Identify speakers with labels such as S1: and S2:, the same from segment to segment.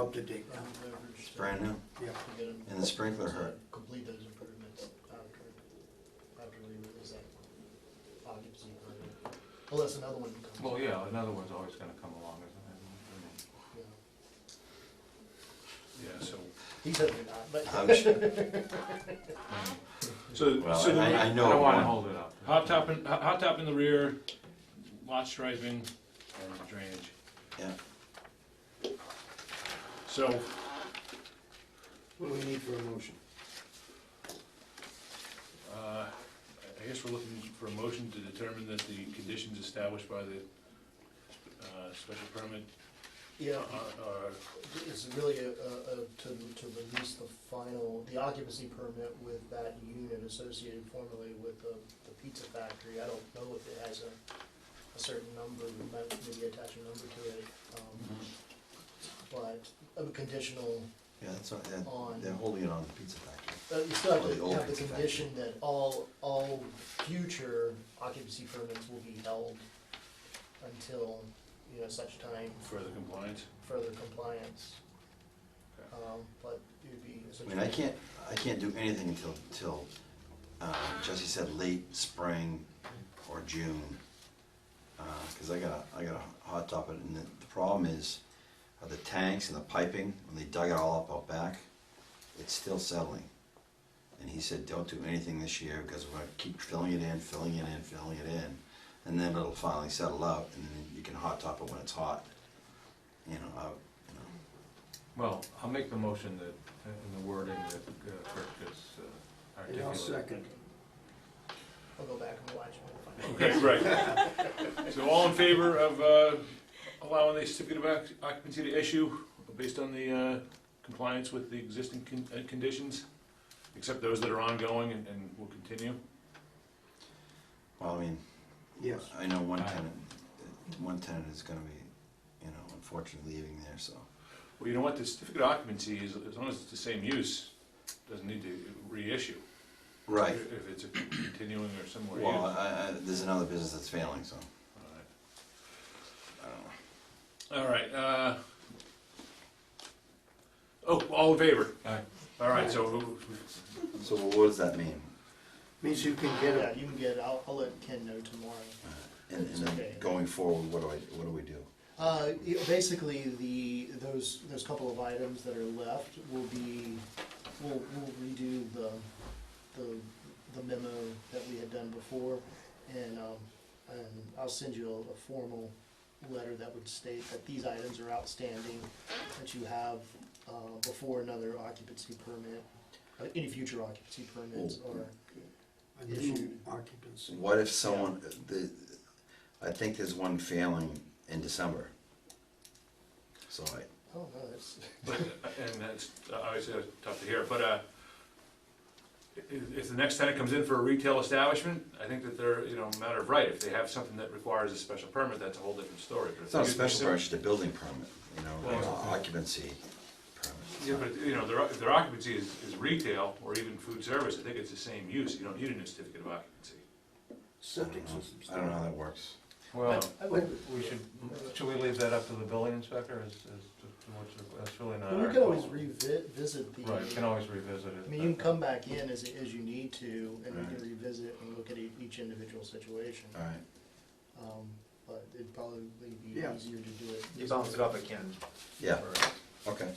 S1: Up to date now,
S2: It's
S3: brand new,
S1: yeah.
S3: and the sprinkler hurt.
S2: Complete those improvements after, after we release that occupancy permit. Unless another one comes.
S4: Well, yeah, another one's always gonna come along, isn't
S2: Yeah.
S5: Yeah, so,
S2: He said they're not, but.
S3: I'm sure,
S5: so,
S3: well,
S5: so
S3: and
S5: the
S3: I, I
S4: it?
S3: know
S4: I
S3: it
S4: don't wanna
S3: won't.
S4: hold it up.
S5: hot top in, hot hot top in the rear, lot striping, and drainage.
S3: Yeah,
S5: So,
S1: What do we need for a motion?
S5: uh, I guess we're looking for a motion to determine that the conditions established by the, uh, special permit
S2: Yeah,
S5: are, are
S2: it's really a, a, a- to, to release the final, the occupancy permit with that unit associated formerly with the, the pizza factory. I don't know if it has a, a certain number, we might maybe attach a number to it, um,
S3: Mm-hmm.
S2: but a conditional
S3: yeah, that's what, they're,
S2: On-
S3: they're holding it on the pizza factory.
S2: Uh, You still have
S3: Or the
S2: to
S3: old
S2: have the
S3: pizza
S2: condition that all, all future occupancy permits will be held until, you know, such time
S5: further compliant.
S2: further compliance.
S5: Okay.
S2: Um, But it would be
S3: I
S2: essentially.
S3: mean, I can't, I can't do anything until, till, uh, Jesse said late spring or June. Uh, cause I got a, I got a hot top it, and the, the problem is, uh, the tanks and the piping, when they dug it all up out back, it's still settling. And he said, don't do anything this year, because we're gonna keep filling it in, filling it in, filling it in, and then it'll finally settle out, and then you can hot top it when it's hot. You know, I, you know.
S4: Well, I'll make the motion that, in the wording that uh, Kirk just uh,
S1: And I'll
S4: articulated.
S1: second.
S2: I'll go back and watch it.
S5: Okay, right. So all in favor of, uh, allowing the certificate of occ- occupancy to issue based on the, uh, compliance with the existing con- uh, conditions? Except those that are ongoing and, and will continue?
S3: Well, I mean,
S1: Yes,
S3: I know one
S4: Aye.
S3: tenant, one tenant is gonna be, you know, unfortunately leaving there, so.
S5: Well, you know what, the certificate of occupancy, is as long as it's the same use, doesn't need to reissue.
S3: Right,
S5: If it's a continuing or similar use.
S3: well, I, I, there's another business that's failing, so, I don't know.
S5: All right, uh, oh, all in favor?
S4: Aye.
S5: All right, so,
S3: So what does that mean?
S1: means you can get
S2: Yeah,
S1: it.
S2: you can get, it. I'll, I'll let Ken know tomorrow.
S3: And, and then going forward, what do I, what do we do?
S2: Uh, you know, basically, the, those, those couple of items that are left will be, we'll, we'll redo the, the, the memo that we had done before. And, um, and I'll send you a, a formal letter that would state that these items are outstanding, that you have, uh, before another occupancy permit, uh, any future occupancy permits or.
S1: Oh, A new occupancy.
S3: What if someone, the, I think there's one failing in December. So I,
S2: Oh, no, that's,
S5: but, and that's, obviously, that's tough to hear, but, uh, if, if the next tenant comes in for a retail establishment, I think that they're, you know, matter of right, if they have something that requires a special permit, that's a whole different story. But if
S3: it's not a
S5: they do
S3: special
S5: sim-
S3: permit, it's just a building permit, you know,
S5: Well-
S3: occupancy permit.
S5: Yeah, but, you know, their, their occupancy is, is retail or even food service, I think it's the same use, you don't need a new certificate of occupancy.
S1: Septic systems.
S3: I don't know how that works.
S4: Well,
S2: I would,
S4: we should, should we leave that up to the building inspector, is, is, to- what's the- that's really not
S2: well, we
S4: our
S2: could always
S4: call.
S2: revisit the.
S4: Right, we can always revisit it.
S2: I mean, you can come back in as, as you need to, and we
S3: Right.
S2: can revisit and look at e- each individual situation.
S3: Alright.
S2: Um, but it'd probably be
S1: Yeah.
S2: easier to do it.
S6: You bounce it up again.
S3: Yeah. Okay.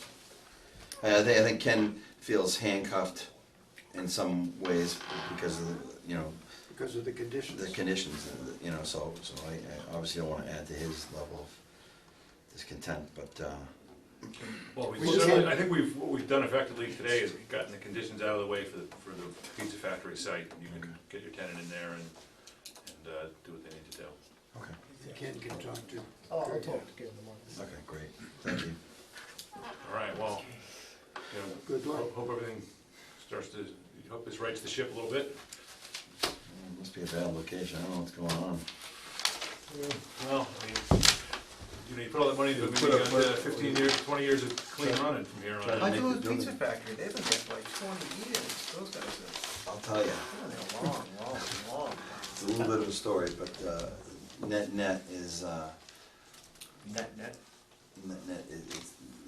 S3: I I think, I think Ken feels handcuffed in some ways because of, the, you know,
S1: Because of the conditions.
S3: the conditions, uh, you know, so, so I, I obviously don't wanna add to his level of discontent, but, uh,
S5: Well, we
S1: We
S5: certainly,
S1: can-
S5: I think we've, what we've done effectively today is we've gotten the conditions out of the way for the, for the pizza factory site. You can get your tenant in there and, and, uh, do what they need to do.
S3: okay,
S1: Ken can talk to.
S2: Oh, I'll talk to Ken tomorrow.
S3: okay, great, thank you.
S5: All right, well, you know,
S1: Good luck.
S5: ho- hope everything starts to, hope this rights the ship a little bit.
S3: Mm, Must be a bad location, I don't know what's going on.
S5: Well, I mean, you know, you put all that money into it, maybe you got uh, fifteen years, twenty years of clean running from here on
S6: I
S5: out.
S3: Make
S6: do
S3: the
S6: Pizza
S3: building.
S6: Factory, they've been there for like twenty years, those guys have
S3: I'll tell you,
S6: been there long, long, long.
S3: it's a little bit of a story, but, uh, net net is, uh,
S6: Net, net,
S3: net net is, is